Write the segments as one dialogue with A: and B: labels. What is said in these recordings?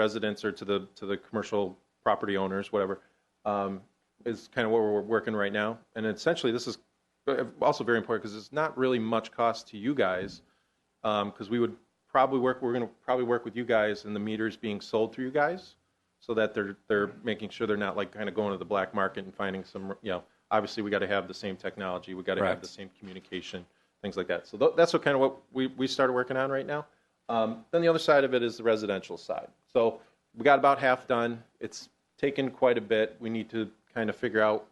A: residents or to the, to the commercial property owners, whatever, um, is kind of what we're working right now. And essentially, this is uh, also very important because it's not really much cost to you guys because we would probably work, we're going to probably work with you guys and the meters being sold through you guys so that they're, they're making sure they're not like kind of going to the black market and finding some, you know, obviously we got to have the same technology, we got to have
B: Correct.
A: the same communication, things like that. So th- that's what kind of what we, we started working on right now. Um, then the other side of it is the residential side. So we got about half done. It's taken quite a bit. We need to kind of figure out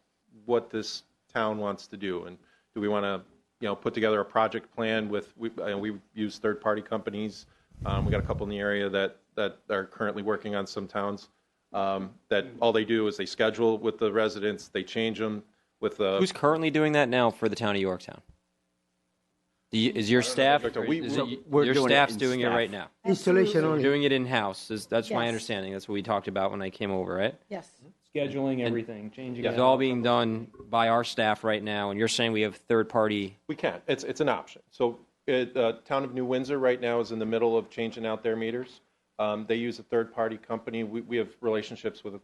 A: what this town wants to do and do we want to you know put together a project plan with we uh, we use third party companies. Um, we got a couple in the area that that are currently working on some towns um, that all they do is they schedule with the residents, they change them with the
B: Who's currently doing that now for the town of Yorktown? Do
A: Hmm.
B: you- Is your staff,
A: Victor. We-
B: is
A: we-
B: it-
C: We're
B: your
C: doing it
B: staff's
C: in
B: doing it
C: staff.
B: right now?
C: Installation
D: Absolutely.
C: only.
B: Doing it in-house, is, that's my
D: Yes.
B: understanding, that's what we talked about when I came over, right?
D: Yes.
A: Hmm?
E: scheduling everything, changing
B: It's
E: it.
B: all being done by our staff right now, and you're saying we have third-party,
A: We can. It's, it's an option. So it, uh, town of New Windsor right now is in the middle of changing out their meters. Um, they use a third-party company. We, we have relationships with a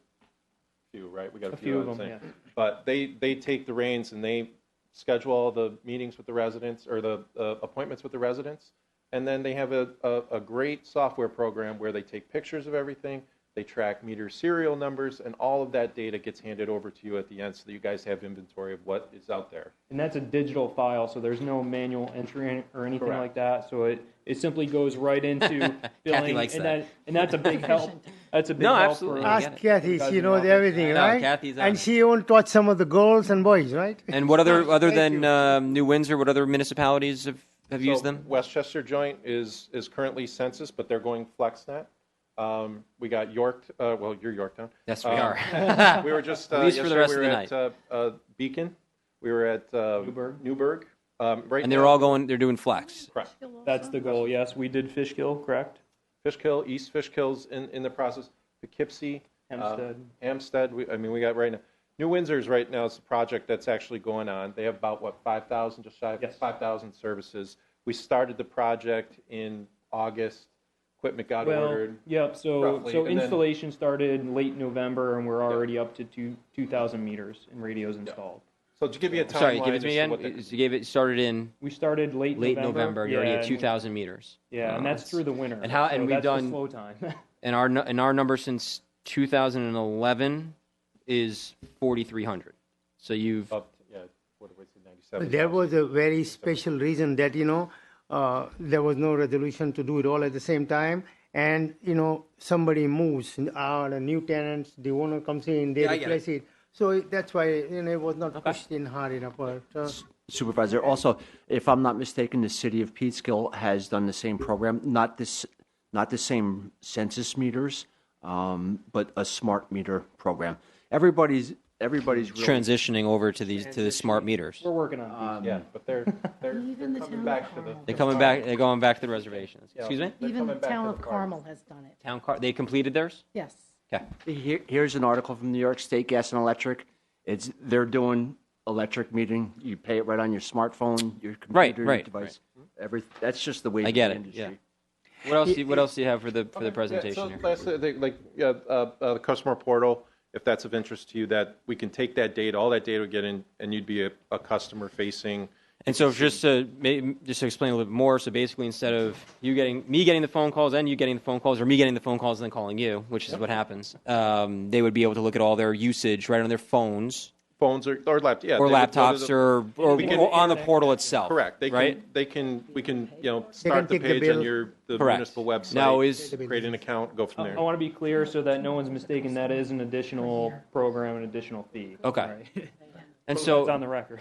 A: few, right? We got a
E: A
A: few.
E: few
A: I
E: of
A: would
E: 'em,
A: say. But they, they take the reins and they schedule all the meetings with the residents or the uh, appointments with the residents. And then they have a, a, a great software program where they take pictures of everything. They track meter serial numbers and all of that data gets handed over to you at the end so that you guys have inventory of what is out there.
E: And that's a digital file, so there's no manual entry or anything
A: Correct.
E: like that. So it, it simply goes right into billing.
B: likes
E: and
B: that.
E: and that's a big help. That's a big
B: No,
E: help
B: absolutely.
E: for
B: I
C: Ask
B: get it.
C: Kathy,
E: Because
C: she
E: you
C: knows
E: know-
C: everything,
B: No,
C: right?
B: Kathy's on
C: And
B: it.
C: she won't touch some of the girls and boys, right?
B: and what other, other
C: Thank
B: than
C: you.
B: um, New Windsor, what other municipalities have, have used
A: So
B: them?
A: Westchester Joint is, is currently census, but they're going FlexNet. Um, we got York, uh, well, you're Yorktown.
B: Yes, we
A: Um,
B: are.
A: We were just, uh,
B: At least for the
A: yesterday
B: rest
A: we were
B: of the
A: at, uh, uh, Beacon. We were at, uh,
E: Newburgh.
A: Newburgh. Um, right
B: And they're
A: now-
B: all going, they're doing flex.
A: Correct.
E: That's the goal. Yes, we did Fishkill, correct?
A: Fishkill, East Fishkill's in, in the process, Poughkeepsie. um,
E: Hempstead.
A: Hempstead, we, I mean, we got right now, New Windsor's right now is the project that's actually going on. They have about, what, 5,000, just shy of
E: Yes.
A: 5,000 services. We started the project in August. Equipment got
E: Well,
A: ordered.
E: yep. So
A: roughly,
E: so
A: and then-
E: installation started in late November, and we're already up to two two thousand meters in radios installed.
A: So to give you a timeline.
B: Sorry, give it to me
A: as what
B: again,
A: the-
B: you gave it, started in
E: We started late
B: late November,
E: November.
B: and you're already at
E: and-
B: 2,000 meters.
E: Yeah, and
B: Uh,
E: that's through the winter.
B: and how-
E: so
B: and we've
E: that's the
B: done-
E: slow time.
B: and our nu- and our number since 2011 is 4300 so you've
A: Up, yeah, what did we say, 97?
C: There was a very special reason that, you know, uh, there was no resolution to do it all at the same time. And, you know, somebody moves out, a new tenant, the owner comes in, they
B: Yeah, I get
C: replace it. So it- that's why, you know, it was not pushed in hard enough. But, uh,
F: Supervisor, also, if I'm not mistaken, the city of Peekskill has done the same program, not this, not the same census meters, um, but a smart meter program. Everybody's, everybody's really
B: transitioning over to these to the smart meters
E: we're working on. these.
A: Yeah, but they're, they're they're
D: Even the
A: coming
D: town
A: back to
D: hall.
A: the.
B: they're coming back they're going back to the reservations
A: Yeah.
B: excuse me
A: They're
D: Even the
A: coming back
D: town
A: to
D: of
A: the parks.
D: Carmel has done it.
B: town car they completed theirs
D: Yes.
B: okay
F: Here, here's an article from New York State Gas and Electric. It's they're doing electric metering. You pay it right on your smartphone, your computer,
B: Right,
F: your
B: right,
F: device. Every that's just the way
B: i
F: of
B: get
F: the
B: it
F: industry.
B: yeah what else do you, what else do you have for the for the presentation
A: Yeah,
B: here?
A: so last, uh, thing, like, yeah, uh, uh, the customer portal, if that's of interest to you, that we can take that data, all that data would get in, and you'd be a, a customer facing.
B: And so, just to ma- just to explain a little bit more, so basically, instead of you getting me getting the phone calls and you getting the phone calls, or me getting the phone calls and then calling you, which is what happens, um, they would be able to look at all their usage right on their phones
A: Phones or, or laptops, yeah.
B: or
A: they would go to
B: laptops
A: the-
B: or, or,
A: We can-
B: or on the portal itself.
A: Correct, they
B: right?
A: can, they can, we can, you know, start the
C: take the
A: page on
C: bill.
A: your, the
B: Correct.
A: municipal website.
B: Now is-
A: Create an account, go from
E: I
A: there.
E: want to be clear so that no one's mistaken, that is an additional program, an additional fee.
B: Okay.
E: Right.
B: and
E: It's on
B: so,
E: the record.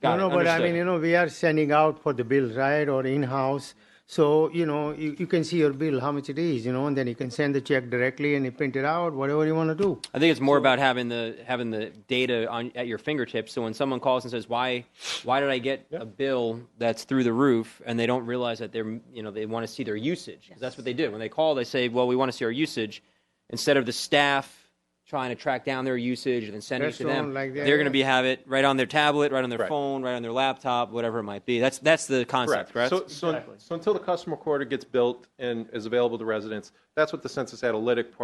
B: got
C: no,
B: it,
C: no, but I
B: understood.
C: mean, you know, we are sending out for the bills, right, or in-house. So, you know, you, you can see your bill, how much it is, you know, and then you can send the check directly and you print it out, whatever you want to do.
B: I think it's more about having the having the data on at your fingertips. So when someone calls and says, "Why, why did I get a bill that's through the roof?" and they don't realize that they're you know they want to see their usage 'Cause that's what they do when they call. They say, "Well, we want to see our usage," instead of the staff trying to track down their usage and then send it to them.
C: Restaurant like that,
B: They're going to be
C: yeah.
B: have it right on their tablet, right on their
A: Correct.
B: phone, right on their laptop, whatever it might be. That's that's the concept, correct?
A: So, so, so until the customer quarter gets built and is available to residents, that's what the census analytic part